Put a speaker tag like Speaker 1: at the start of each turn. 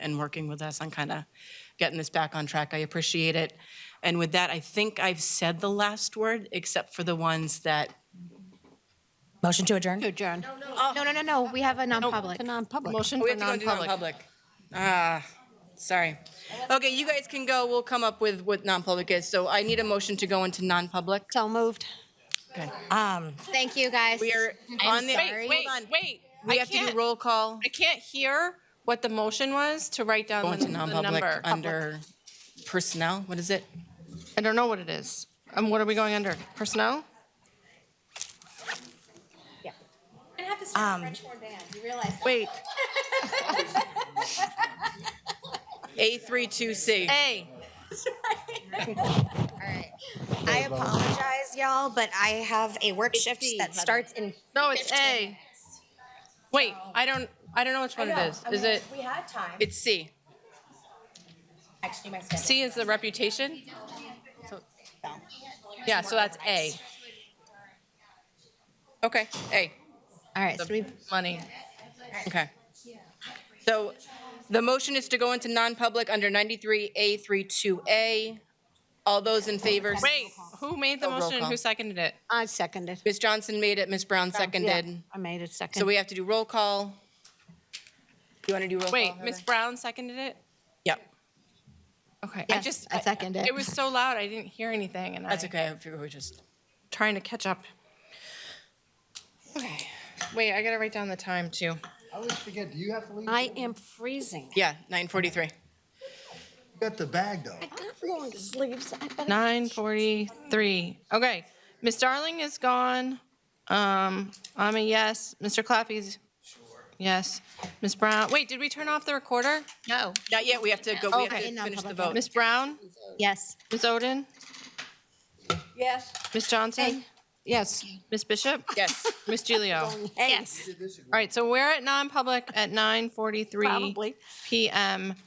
Speaker 1: and working with us on kind of getting this back on track. I appreciate it. And with that, I think I've said the last word, except for the ones that
Speaker 2: Motion to adjourn?
Speaker 3: adjourn.
Speaker 2: No, no, no, no, we have a non-public.
Speaker 3: To non-public.
Speaker 1: Oh, we have to go into non-public. Ah, sorry. Okay, you guys can go. We'll come up with what non-public is. So I need a motion to go into non-public.
Speaker 3: So moved.
Speaker 2: Um,
Speaker 3: Thank you, guys.
Speaker 1: We are on the.
Speaker 4: Wait, wait,
Speaker 1: Hold on.
Speaker 4: wait.
Speaker 1: We
Speaker 4: I
Speaker 1: have to do
Speaker 4: can't-
Speaker 1: roll call.
Speaker 4: I can't hear what the motion was to write down
Speaker 1: Go
Speaker 4: the
Speaker 1: into
Speaker 4: the
Speaker 1: non-public
Speaker 4: number.
Speaker 1: under personnel. What is it?
Speaker 4: I don't know what it is. Um, what are we going under? Personnel?
Speaker 2: um,
Speaker 4: Wait.
Speaker 1: A32C.
Speaker 4: A.
Speaker 5: All right. I apologize, y'all, but I have a work shift that starts in.
Speaker 4: No, it's A. Wait, I don't, I don't know which one it is. Is it,
Speaker 5: We had time.
Speaker 4: it's C.
Speaker 5: Actually, my schedule. Oh.
Speaker 4: C is the reputation? So- Yeah, so that's A.
Speaker 1: Okay, A.
Speaker 3: All right, so we,
Speaker 4: Money.
Speaker 1: Okay. So the motion is to go into non-public under 93A32A. All those in favor?
Speaker 4: Wait, who made the
Speaker 1: Oh, roll
Speaker 4: motion and
Speaker 1: call.
Speaker 4: who seconded it?
Speaker 3: I seconded.
Speaker 1: Ms. Johnson made it, Ms. Brown
Speaker 3: Yeah,
Speaker 1: seconded.
Speaker 3: I made it second.
Speaker 1: So we have to do roll call. You want to do roll call?
Speaker 4: Wait,
Speaker 1: Heather?
Speaker 4: Ms. Brown seconded it?
Speaker 1: Yep,
Speaker 4: Okay, I
Speaker 3: Yes,
Speaker 4: just.
Speaker 3: I second it.
Speaker 4: It was so loud, I didn't hear anything and I.
Speaker 1: that's okay. I figure we just,
Speaker 4: trying to catch up. Okay. Wait, I gotta write down the time too.
Speaker 6: I always forget, do you have to leave?
Speaker 3: I am freezing.
Speaker 1: yeah, 9:43.
Speaker 6: You got the bag, though.
Speaker 4: Nine forty-three. Okay. Miss Darling is gone. Um, I'm a yes. Mr. Claffey's. Yes. Miss Brown. Wait, did we turn off the recorder?
Speaker 3: No.
Speaker 1: Not yet, we have to go, we have to
Speaker 4: Okay.
Speaker 1: finish the
Speaker 3: Non-public.
Speaker 1: vote.
Speaker 4: Miss Brown,
Speaker 3: Yes.
Speaker 4: Miss Oden,
Speaker 1: Yes.
Speaker 4: Miss Johnson,
Speaker 3: Yes.
Speaker 4: Miss Bishop,
Speaker 1: Yes.
Speaker 4: Miss Gilio. All
Speaker 3: Yes.
Speaker 4: right, so we're at non-public at nine forty-three
Speaker 3: Probably.
Speaker 4: PM.